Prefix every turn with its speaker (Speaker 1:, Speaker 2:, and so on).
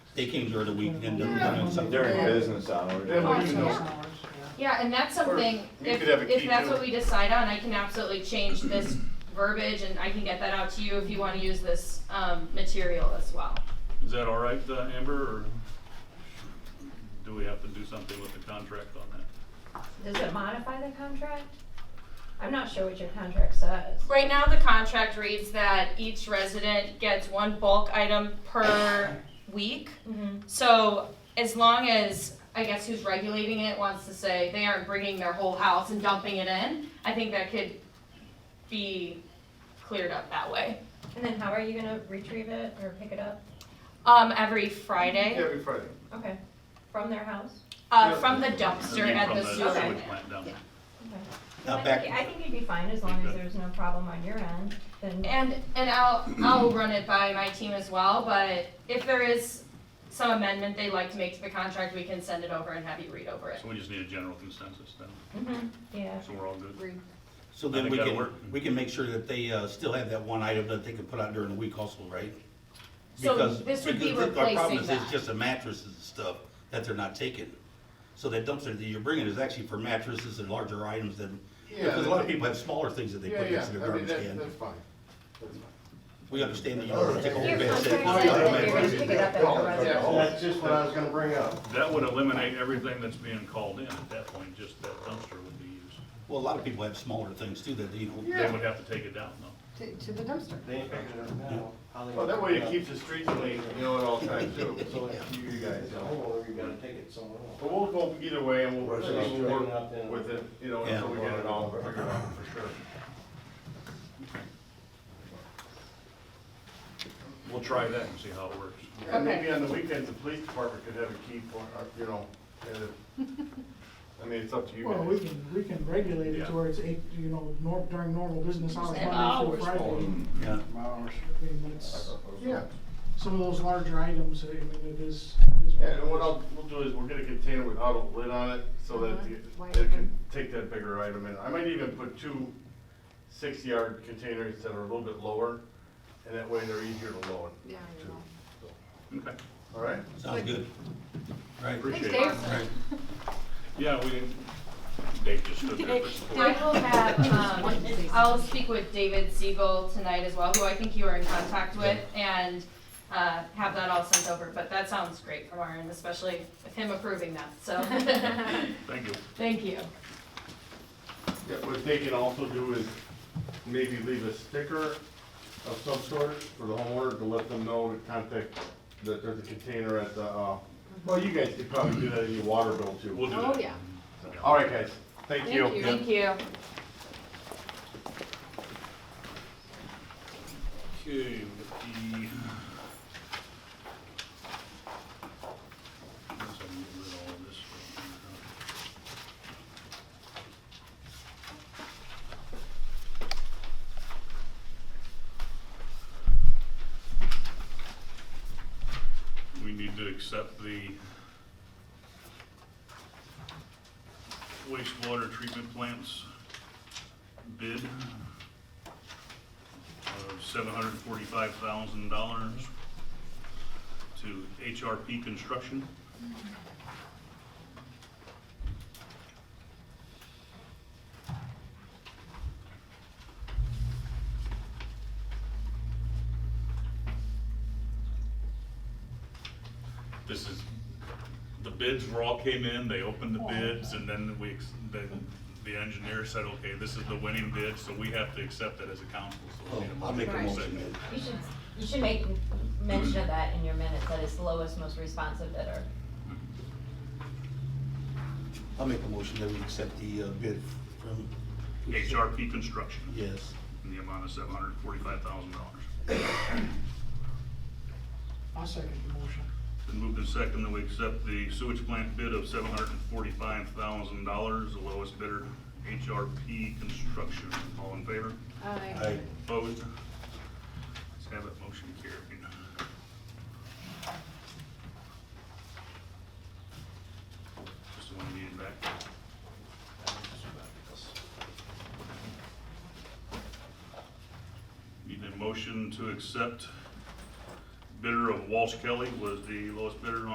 Speaker 1: they came during the week and they're doing something.
Speaker 2: During business hours.
Speaker 3: Then we can
Speaker 4: Yeah.
Speaker 3: know.
Speaker 4: Yeah, and that's
Speaker 3: Or
Speaker 4: something,
Speaker 3: we
Speaker 4: if,
Speaker 3: could have a
Speaker 4: if
Speaker 3: key
Speaker 4: that's
Speaker 3: to it.
Speaker 4: what we decide on, I can absolutely change this verbiage and I can get that out to you if you wanna use this, um, material as well.
Speaker 5: Is that all right, uh, Amber, or do we have to do something with the contract on that?
Speaker 6: Does it modify the contract? I'm not sure what your contract says.
Speaker 4: Right now, the contract reads that each resident gets one bulk item per week.
Speaker 6: Mhm.
Speaker 4: So as long as, I guess who's regulating it wants to say they aren't bringing their whole house and dumping it in, I think that could be cleared up that way.
Speaker 6: And then how are you gonna retrieve it or pick it up?
Speaker 4: Um, every Friday,
Speaker 3: Every Friday.
Speaker 6: Okay, from their house?
Speaker 4: uh, from the dumpster
Speaker 5: I mean,
Speaker 4: at the
Speaker 5: From
Speaker 4: sewer.
Speaker 5: the
Speaker 6: Okay.
Speaker 5: sewage plant down there.
Speaker 6: Okay.
Speaker 1: Now
Speaker 6: I
Speaker 1: back-
Speaker 6: think- I think you'd be fine as long as there's no problem on your end, then.
Speaker 4: And and I'll I'll run it by my team as well, but if there is some amendment they'd like to make to the contract, we can send it over and have you read over it.
Speaker 5: So we just need a general consensus then,
Speaker 6: Mhm, Yeah,
Speaker 5: so we're all good.
Speaker 1: So
Speaker 5: I
Speaker 1: then
Speaker 5: think
Speaker 1: we
Speaker 5: that'll
Speaker 1: can,
Speaker 5: work.
Speaker 1: we can make sure that they, uh, still have that one item that they can put out during the week also, right?
Speaker 4: So
Speaker 1: Because-
Speaker 4: this would be
Speaker 1: because the- Our problem
Speaker 4: replacing
Speaker 1: is
Speaker 4: that.
Speaker 1: it's just the mattresses and stuff that they're not taking. So that dumpster that you're bringing is actually for mattresses and larger items than,
Speaker 3: Yeah,
Speaker 1: because a lot of
Speaker 3: they-
Speaker 1: people have smaller things that they
Speaker 3: Yeah,
Speaker 1: put
Speaker 3: yeah,
Speaker 1: next to their
Speaker 3: I mean,
Speaker 1: garbage
Speaker 3: that,
Speaker 1: can.
Speaker 3: that's fine. That's fine.
Speaker 1: We understand that you don't wanna take a whole
Speaker 6: Your
Speaker 1: bed
Speaker 6: contract
Speaker 1: set.
Speaker 6: says
Speaker 1: Oh, yeah,
Speaker 6: that
Speaker 1: man.
Speaker 6: you're gonna pick it up at the residence.
Speaker 7: That's just what I was gonna bring up.
Speaker 5: That would eliminate everything that's being called in at that point, just that dumpster would be used.
Speaker 1: Well, a lot of people have smaller things too that, you know,
Speaker 5: They would have to take it down though.
Speaker 8: to, to the dumpster.
Speaker 7: They ain't picking it up now. How they
Speaker 3: Well, that way
Speaker 7: gonna
Speaker 3: it
Speaker 7: pick
Speaker 3: keeps the streets clean, you know, at all times too, so
Speaker 7: it up?
Speaker 3: it's you guys,
Speaker 7: As a
Speaker 3: you know.
Speaker 7: homeowner, you gotta take it somewhere else.
Speaker 3: But we'll go either way and we'll,
Speaker 7: Right, so
Speaker 3: we'll
Speaker 7: straighten
Speaker 3: work
Speaker 7: up then.
Speaker 3: with it, you know,
Speaker 1: Yeah.
Speaker 3: until we get it all figured out for sure.
Speaker 5: We'll try that and see how it works.
Speaker 3: And
Speaker 4: Okay.
Speaker 3: maybe on the weekends, the police department could have a key for, uh, you know, and it- I mean, it's up to you guys.
Speaker 8: Well, we can, we can regulate it
Speaker 5: Yeah.
Speaker 8: to where it's eight, you know, nor, during normal business hours,
Speaker 4: Ten
Speaker 8: Monday through
Speaker 3: hours,
Speaker 8: Friday.
Speaker 1: yeah.
Speaker 8: I mean, it's,
Speaker 3: Yeah,
Speaker 8: some of those larger items, I mean, it is, it is. what
Speaker 3: yeah,
Speaker 8: it
Speaker 3: and what
Speaker 8: is.
Speaker 3: I'll, we'll do is we'll get a container without a lid on it so
Speaker 9: Uh-huh.
Speaker 3: that it
Speaker 9: Wide
Speaker 3: it can
Speaker 9: open.
Speaker 3: take that bigger item in. I might even put two six-yard containers that are a little bit lower, and that way they're easier to load.
Speaker 9: Yeah, I know.
Speaker 5: Okay,
Speaker 3: All right?
Speaker 1: Sounds good. Right.
Speaker 5: appreciate it.
Speaker 9: Thanks, Dave.
Speaker 1: Right.
Speaker 5: Yeah, we, didn't- Dave just stood there for
Speaker 4: I will have, um, I'll speak with David Siegel tonight as well, who I think you are in contact with, and, uh, have that all sent over, but that sounds great from our end, especially with him approving that, so,
Speaker 5: Thank you.
Speaker 4: thank you.
Speaker 3: Yeah, what they can also do is maybe leave a sticker of some sort for the homeowner to let them know to contact, that there's a container at the,
Speaker 9: Uh-huh.
Speaker 3: uh, well, you guys could probably do that in your water bill
Speaker 5: We'll
Speaker 3: too.
Speaker 5: do
Speaker 9: Oh,
Speaker 5: that.
Speaker 9: yeah.
Speaker 3: All right, guys, thank you.
Speaker 9: Thank you.
Speaker 4: Thank you.
Speaker 5: Okay, with the. Guess I'll get rid of all this right here. We need to accept the wastewater treatment plants bid of seven hundred forty-five thousand dollars to HRP Construction. This is, the bids were all came in, they opened the bids, and then we, ex- then the engineer said, okay, this is the winning bid, so we have to accept it as a council,
Speaker 1: Oh,
Speaker 5: so we need a
Speaker 1: I'll make a
Speaker 5: and a
Speaker 1: motion,
Speaker 5: second.
Speaker 1: man.
Speaker 6: You should, you should make mention of that in your minutes, that it's the lowest, most responsive bidder.
Speaker 1: I'll make a motion that we accept the uh, bid from.
Speaker 5: HRP Construction.
Speaker 1: Yes.
Speaker 5: in the amount of seven hundred forty-five thousand dollars.
Speaker 8: I'll second the motion.
Speaker 5: Been moved and second that we accept the sewage plant bid of seven hundred and forty-five thousand dollars, the lowest bidder, HRP Construction. All in favor?
Speaker 1: I,
Speaker 5: Opposed? Let's have it, motion carried. Just the one you needed back. Need a motion to accept bidder of Walsh Kelly was the lowest bidder on